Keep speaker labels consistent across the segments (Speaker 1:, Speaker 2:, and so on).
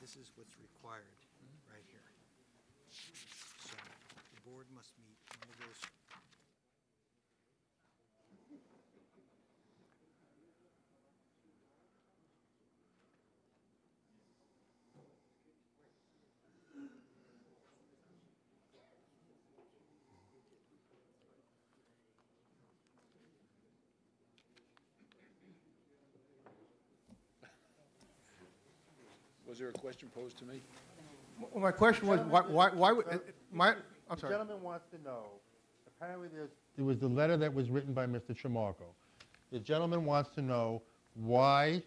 Speaker 1: This is what's required, right here. So the board must meet one of those.
Speaker 2: Was there a question posed to me?
Speaker 3: Well, my question was, why, why, why would,
Speaker 4: uh,
Speaker 5: Sir,
Speaker 3: my, I'm
Speaker 5: The
Speaker 3: sorry.
Speaker 5: gentleman wants to know, apparently there's,
Speaker 3: It was the letter that was written by Mr. Tramarko. The gentleman wants to know why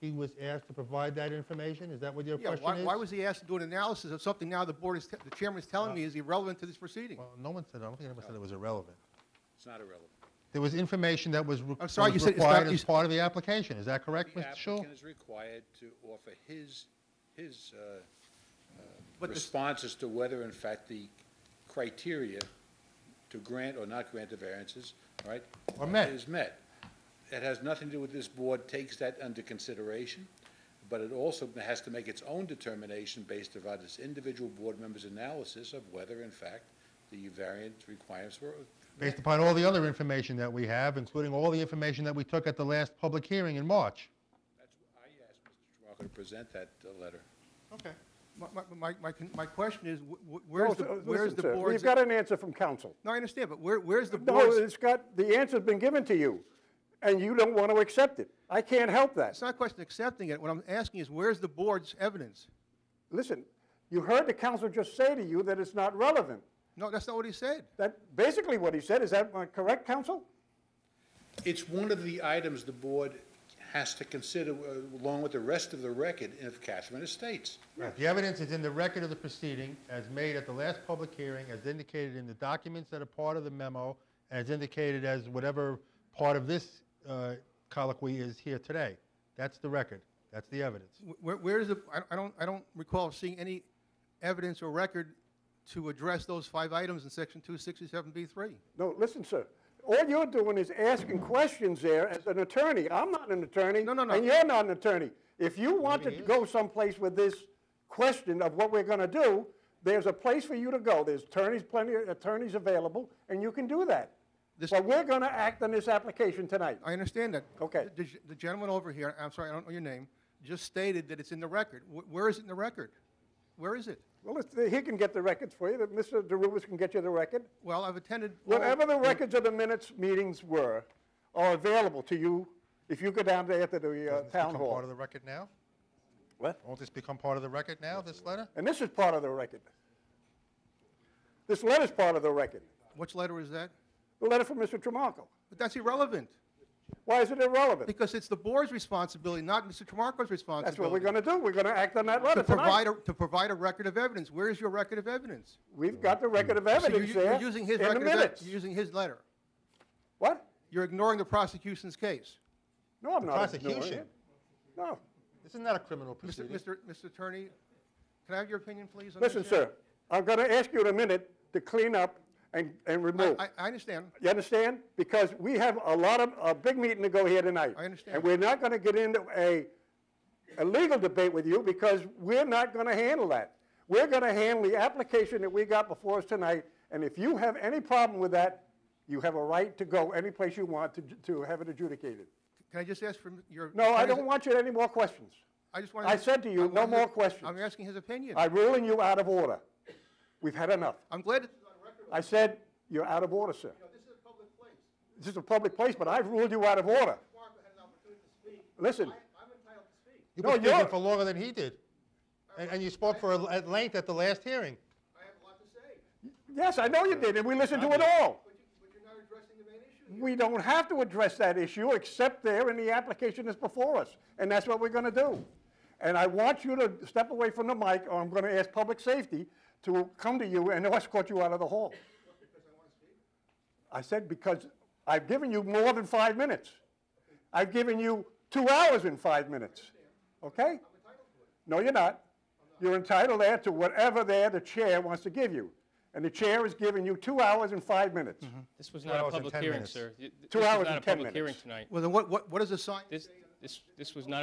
Speaker 3: he was asked to provide that information? Is that what your
Speaker 4: Yeah,
Speaker 3: question
Speaker 4: why,
Speaker 3: is?
Speaker 4: why was he asked to do an analysis of something now the board is, te- the chairman is
Speaker 6: Uh,
Speaker 4: telling me is irrelevant to this proceeding?
Speaker 3: Well, no one said, I don't think anyone said it was irrelevant.
Speaker 2: It's not irrelevant.
Speaker 3: There was information that was re-
Speaker 4: I'm sorry, you
Speaker 3: was
Speaker 4: said it's not-
Speaker 3: required
Speaker 4: you
Speaker 3: as
Speaker 4: s-
Speaker 3: part of the application. Is that correct,
Speaker 2: The
Speaker 3: Mr. Shul?
Speaker 2: applicant is required to offer his, his uh,
Speaker 4: But this-
Speaker 2: response as to whether in fact the criteria to grant or not grant the variances, all right?
Speaker 3: Are met.
Speaker 2: Is met. It has nothing to do with this board takes that under consideration, but it also has to make its own determination based upon its individual board members' analysis of whether in fact the variance requirements were,
Speaker 3: Based upon all the other information that we have, including all the information that we took at the last public hearing in March.
Speaker 2: that's, I asked Mr. Toronko to present that uh, letter.
Speaker 4: Okay. My, my, my, my, con- my question is, wh- wh-
Speaker 6: No,
Speaker 4: where's the,
Speaker 6: sir,
Speaker 4: where's
Speaker 6: Oh, listen,
Speaker 4: the
Speaker 6: sir,
Speaker 4: board's?
Speaker 6: We've got an answer from council.
Speaker 4: No, I understand, but where, where's the
Speaker 6: No,
Speaker 4: board's?
Speaker 6: it's got, the answer's been given to you, and you don't want to accept it. I can't help that.
Speaker 4: It's not a question of accepting it. What I'm asking is, where's the board's evidence?
Speaker 6: Listen, you heard the council just say to you that it's not relevant.
Speaker 4: No, that's not what he said.
Speaker 6: That, basically what he said, is that uh, correct, council?
Speaker 2: It's one of the items the board has to consider uh, along with the rest of the record of Catherine Estates.
Speaker 3: The evidence is in the record of the proceeding, as made at the last public hearing, as indicated in the documents that are part of the memo, as indicated as whatever part of this uh, colloquy is here today. That's the record. That's the evidence.
Speaker 4: Wh- Where, where's the, I- I don't, I don't recall seeing any evidence or record to address those five items in section two sixty-seven B three.
Speaker 6: No, listen, sir. All you're doing is asking questions there as an attorney. I'm not an attorney.
Speaker 4: No, no, no.
Speaker 6: And you're not an attorney. If you want to go someplace with this question of what we're going to do, there's a place for you to go. There's attorneys, plenty of attorneys available, and you can do that.
Speaker 4: This-
Speaker 6: But we're going to act on this application tonight.
Speaker 4: I understand that.
Speaker 6: Okay.
Speaker 4: The the- the gentleman over here, I'm sorry, I don't know your name, just stated that it's in the record. Wh- Where is it in the record? Where is it?
Speaker 6: Well, it's- he can get the records for you. that Mr. DeRubis can get you the record.
Speaker 4: Well, I've attended. all-
Speaker 6: Whatever the records of the minutes meetings were are available to you if you go down there to the uh,
Speaker 3: Doesn't this
Speaker 6: town
Speaker 3: become
Speaker 6: hall.
Speaker 3: Part of the record now?
Speaker 6: What?
Speaker 3: Won't this become part of the record now, this letter?
Speaker 6: And this is part of the record. This letter's part of the record,
Speaker 4: Which letter is that?
Speaker 6: the letter from Mr. Tramarko.
Speaker 4: But that's irrelevant,
Speaker 6: Why is it irrelevant?
Speaker 4: because it's the board's responsibility, not Mr. Tramarko's responsibility.
Speaker 6: That's what we're going to do. We're going to act on that letter
Speaker 4: To provide,
Speaker 6: tonight.
Speaker 4: a- to provide a record of evidence. Where is your record of evidence?
Speaker 6: We've got the record of
Speaker 4: So you're
Speaker 6: evidence
Speaker 4: u- you're
Speaker 6: there
Speaker 4: using
Speaker 6: in
Speaker 4: his
Speaker 6: the
Speaker 4: record of ev-
Speaker 6: minutes.
Speaker 4: You're using his letter.
Speaker 6: What?
Speaker 4: You're ignoring the prosecution's case.
Speaker 6: No, I'm not ignoring
Speaker 3: prosecution.
Speaker 6: it. No.
Speaker 3: Isn't that a criminal
Speaker 4: Mr.
Speaker 3: proceeding?
Speaker 4: Mr. Mr. Attorney, can I have your opinion, please? on this
Speaker 6: Listen,
Speaker 4: issue?
Speaker 6: sir, I'm going to ask you in a minute to clean up and, and remove.
Speaker 4: I, I understand.
Speaker 6: You understand? Because we have a lot of, a big meeting to go here tonight.
Speaker 4: I understand.
Speaker 6: And we're not going to get into a, a legal debate with you because we're not going to handle that. We're going to handle the application that we got before us tonight, and if you have any problem with that, you have a right to go any place you want to, to have it adjudicated.
Speaker 4: Can I just ask for your?
Speaker 6: No, I
Speaker 4: attorney's-
Speaker 6: don't want you any more questions.
Speaker 4: I just want.
Speaker 6: I said to you, no more questions.
Speaker 4: I'm asking his opinion.
Speaker 6: I'm ruling you out of order. We've had enough.
Speaker 4: I'm glad. it's on record.
Speaker 6: I said, you're out of order, sir. This is a public place, but I've ruled you out of order. Listen,
Speaker 3: You
Speaker 6: No,
Speaker 3: were speaking
Speaker 6: you're-
Speaker 3: for longer than he did. And, and you spoke for, a- at length at the last hearing.
Speaker 6: yes, I know you did, and we listened to it all. We don't have to address that issue except there in the application that's before us, and that's what we're gonna do. And I want you to step away from the mic, or I'm gonna ask public safety to come to you and escort you out of the hall. I said because I've given you more than five minutes. I've given you two hours and five minutes, okay? No, you're not. You're entitled there to whatever there the chair wants to give you. And the chair has given you two hours and five minutes.
Speaker 7: This was not a
Speaker 3: hours and
Speaker 7: public
Speaker 3: 10
Speaker 7: hearing,
Speaker 3: minutes.
Speaker 7: sir. Y- th-
Speaker 6: Two
Speaker 7: this was
Speaker 6: hours
Speaker 7: not
Speaker 6: and
Speaker 7: a
Speaker 6: 10
Speaker 7: public Hearing
Speaker 6: minutes.
Speaker 7: tonight.
Speaker 4: Well, then what, what, what does the sign say?
Speaker 7: This, this, this was not a